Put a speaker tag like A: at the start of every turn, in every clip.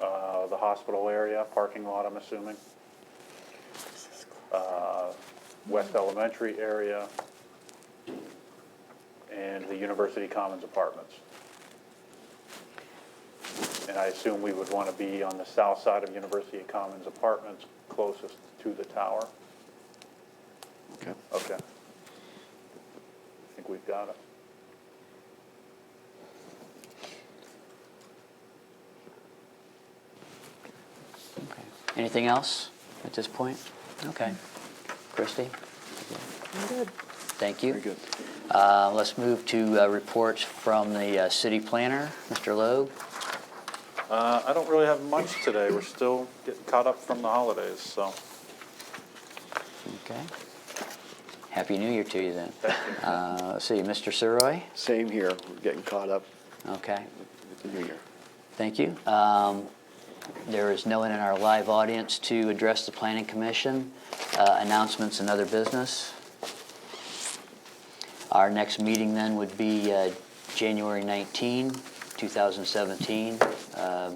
A: uh, hospital area, parking lot, I'm assuming. Uh, West Elementary area. And the University Commons apartments. And I assume we would want to be on the south side of University Commons apartments, closest to the tower.
B: Okay.
A: Okay. I think we've got it.
C: Anything else at this point? Okay. Christie,
D: Good.
C: thank you.
B: Very good.
C: Uh, Let's move to uh, reports from the uh, city planner, Mr. Logue.
A: Uh, I don't really have much today. We're still getting caught up from the holidays, so.
C: Okay. Happy New Year to you then. Uh, Let's see, Mr. Surroy?
B: Same here. We're getting caught up
C: Okay,
B: with the new year.
C: thank you. Um, There is no one in our live audience to address the planning commission. Uh, Announcements and other business. Our next meeting then would be uh, January 19, 2017. Uh,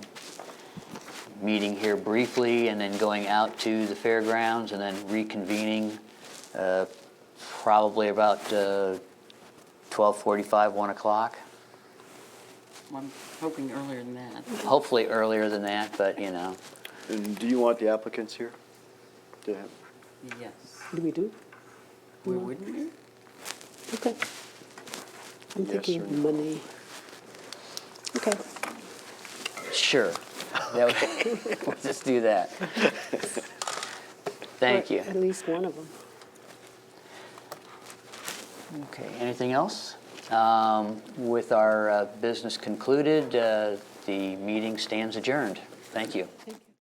C: Meeting here briefly and then going out to the fairgrounds and then reconvening uh, probably about uh, 12:45, 1 o'clock.
D: I'm hoping earlier than that.
C: Hopefully earlier than that, but you know,
B: And do you want the applicants here? To have-
D: Yes.
E: Do we do?
D: We wouldn't we?
E: Okay. I'm
B: Yes or
E: thinking
B: no?
E: money. Okay,
C: sure. That would- We'll just do that. Thank
E: Or
C: you.
E: At least one of them.
C: Okay, anything else? Um, With our uh, business concluded, uh, the meeting stands adjourned. Thank you.
E: Thank you.